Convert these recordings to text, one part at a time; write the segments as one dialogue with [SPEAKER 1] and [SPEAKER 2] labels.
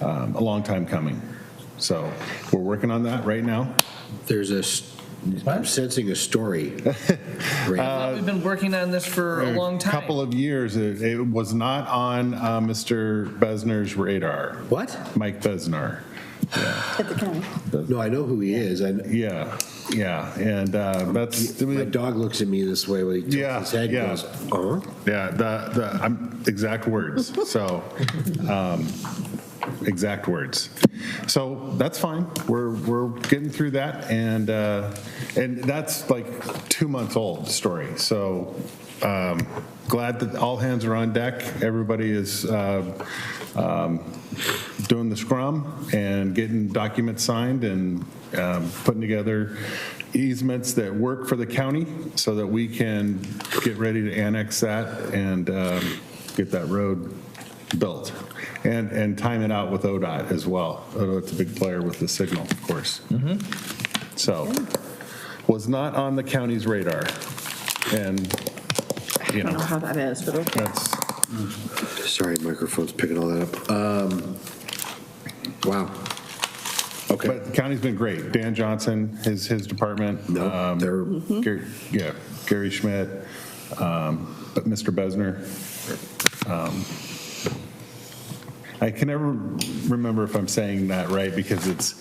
[SPEAKER 1] um, a long time coming. So we're working on that right now.
[SPEAKER 2] There's a, s- I'm sensing a story. Grant.
[SPEAKER 3] Well, We've been working on this for a long time.
[SPEAKER 1] Couple of years, it, it was not on uh, Mr. Besner's radar.
[SPEAKER 2] What?
[SPEAKER 1] Mike Besner.
[SPEAKER 4] at the county.
[SPEAKER 2] No, I know who he is. I-
[SPEAKER 1] Yeah, yeah, and uh, that's
[SPEAKER 2] My dog looks at me this way when he
[SPEAKER 1] Yeah,
[SPEAKER 2] tilts his head
[SPEAKER 1] yeah.
[SPEAKER 2] and goes, uh-huh.
[SPEAKER 1] Yeah, the, the, I'm, exact words, so, um, exact words. So that's fine, we're, we're getting through that, and, uh, and that's like two months old story, so um, glad that all hands are on deck, everybody is uh, um, doing the scrum and getting documents signed and um, putting together easements that work for the county so that we can get ready to annex that and um, get that road built. And, and time it out with ODOT as well. ODOT's a big player with the signal, of course. So, was not on the county's radar. And, you
[SPEAKER 4] I don't know
[SPEAKER 1] know,
[SPEAKER 4] how that is, but okay.
[SPEAKER 1] that's,
[SPEAKER 2] Sorry, microphone's picking all that up. Um, Wow. Okay.
[SPEAKER 1] but the county's been great. Dan Johnson, his, his department.
[SPEAKER 2] No,
[SPEAKER 1] um,
[SPEAKER 2] they're,
[SPEAKER 4] Hmm?
[SPEAKER 1] Gary, yeah, Gary Schmidt, um, but Mr. Besner. um, I can never remember if I'm saying that right because it's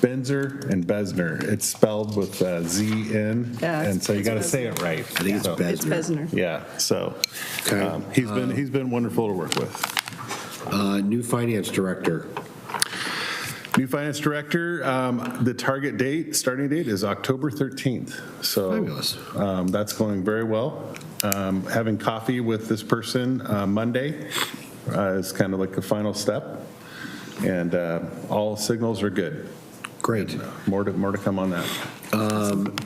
[SPEAKER 1] Benzer and Besner. It's spelled with uh, Z in,
[SPEAKER 4] Yeah,
[SPEAKER 1] and so you
[SPEAKER 4] it's
[SPEAKER 1] got to
[SPEAKER 4] Besner.
[SPEAKER 1] say it right.
[SPEAKER 2] I think it's
[SPEAKER 1] So,
[SPEAKER 2] Besner.
[SPEAKER 4] It's Besner.
[SPEAKER 1] Yeah, so
[SPEAKER 2] Okay.
[SPEAKER 1] um, he's been, he's been wonderful to work with.
[SPEAKER 2] uh, new finance director.
[SPEAKER 1] New finance director, um, the target date, starting date is October 13th. So
[SPEAKER 2] Fabulous.
[SPEAKER 1] um, that's going very well. Um, Having coffee with this person uh, Monday uh, is kind of like the final step. And uh, all signals are good.
[SPEAKER 2] Great.
[SPEAKER 1] More to, more to come on that.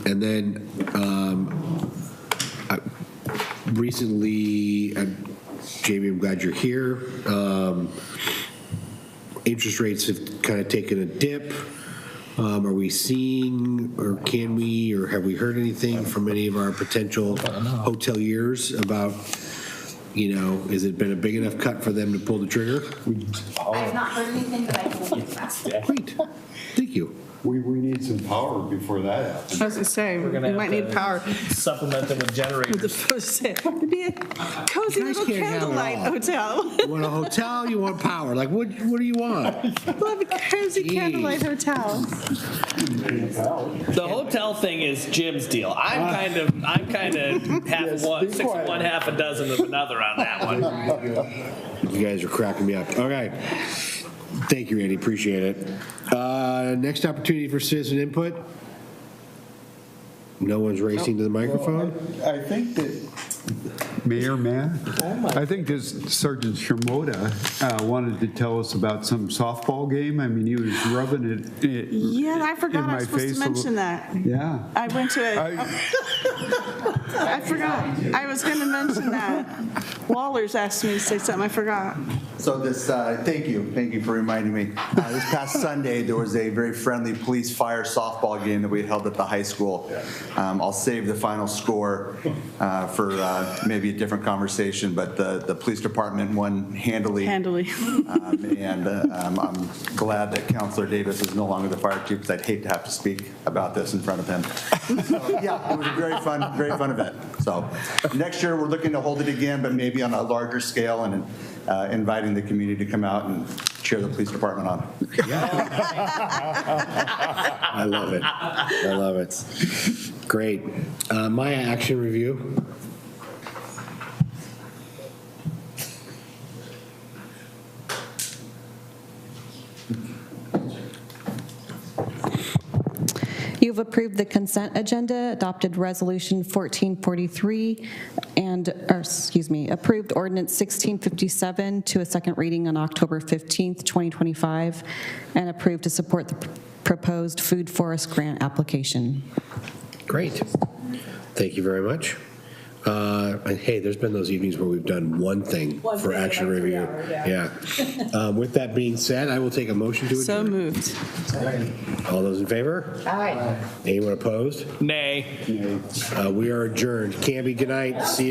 [SPEAKER 2] And then um, I- recently, uh, Jamie, I'm glad you're here. Um, Interest rates have kind of taken a dip. Um, Are we seeing, or can we, or have we heard anything from any of our potential hoteliers about, you know, has it been a big enough cut for them to pull the trigger?
[SPEAKER 5] I've not heard anything, but I can look fast.
[SPEAKER 2] Great, thank you.
[SPEAKER 6] We, we need some power before that happens.
[SPEAKER 7] I was gonna say, we
[SPEAKER 8] gonna
[SPEAKER 7] might
[SPEAKER 8] have
[SPEAKER 7] need
[SPEAKER 8] to
[SPEAKER 7] power.
[SPEAKER 8] Supplement them with generators.
[SPEAKER 7] With the first, it'd be a cozy
[SPEAKER 2] guys
[SPEAKER 7] little
[SPEAKER 2] can't have it
[SPEAKER 7] candlelight
[SPEAKER 2] all.
[SPEAKER 7] hotel.
[SPEAKER 2] You want a hotel, you want power, like, what, what do you want?
[SPEAKER 7] Love a cozy
[SPEAKER 2] Jeez.
[SPEAKER 7] candlelight hotel.
[SPEAKER 8] The hotel thing is Jim's deal. I'm kind of, I'm kind of half of one, six of one, half a dozen of another on that one.
[SPEAKER 2] You guys are cracking me up. Okay. Thank you, Andy. Appreciate it. Uh, Next opportunity for citizen input? No one's racing to the microphone?
[SPEAKER 6] I think that. Oh, Mayor, man, I think this Sergeant Shimoda uh, wanted to tell us about some softball game. I mean, he was rubbing it. it
[SPEAKER 7] Yeah, I
[SPEAKER 6] in
[SPEAKER 7] forgot I
[SPEAKER 6] my
[SPEAKER 7] was supposed
[SPEAKER 6] face
[SPEAKER 7] to
[SPEAKER 6] a
[SPEAKER 7] mention
[SPEAKER 6] little-
[SPEAKER 7] that.
[SPEAKER 6] Yeah.
[SPEAKER 7] I went to a,
[SPEAKER 6] I-
[SPEAKER 7] I forgot. I was gonna mention that. Wallers asked me to say something, I forgot.
[SPEAKER 9] So this, uh, thank you, thank you for reminding me. Uh, This past Sunday, there was a very friendly police fire softball game that we held at the high school. Um, I'll save the final score uh, for uh, maybe a different conversation, but the, the police department won handily.
[SPEAKER 7] Handily.
[SPEAKER 9] Um, And uh, um, I'm glad that Counselor Davis is no longer the fire chief, because I'd hate to have to speak about this in front of him. So, Yeah, it was a very fun, very fun event. So next year, we're looking to hold it again, but maybe on a larger scale and uh, inviting the community to come out and cheer the police department on.
[SPEAKER 2] I love it. I love it. Great. Uh, Maya, action review?
[SPEAKER 10] You've approved the consent agenda, adopted Resolution 1443, and, or, excuse me, approved Ordinance 1657 to a second reading on October 15th, 2025, and approved to support the proposed food forest grant application.
[SPEAKER 2] Great. Thank you very much. Uh, And hey, there's been those evenings where we've done one thing for action review. Yeah. Um, With that being said, I will take a motion to
[SPEAKER 7] So
[SPEAKER 2] adjourn.
[SPEAKER 7] moved.
[SPEAKER 2] All those in favor? Aye. Anyone opposed?
[SPEAKER 8] Nay.
[SPEAKER 2] Uh, We are adjourned. Canby, good night. See you.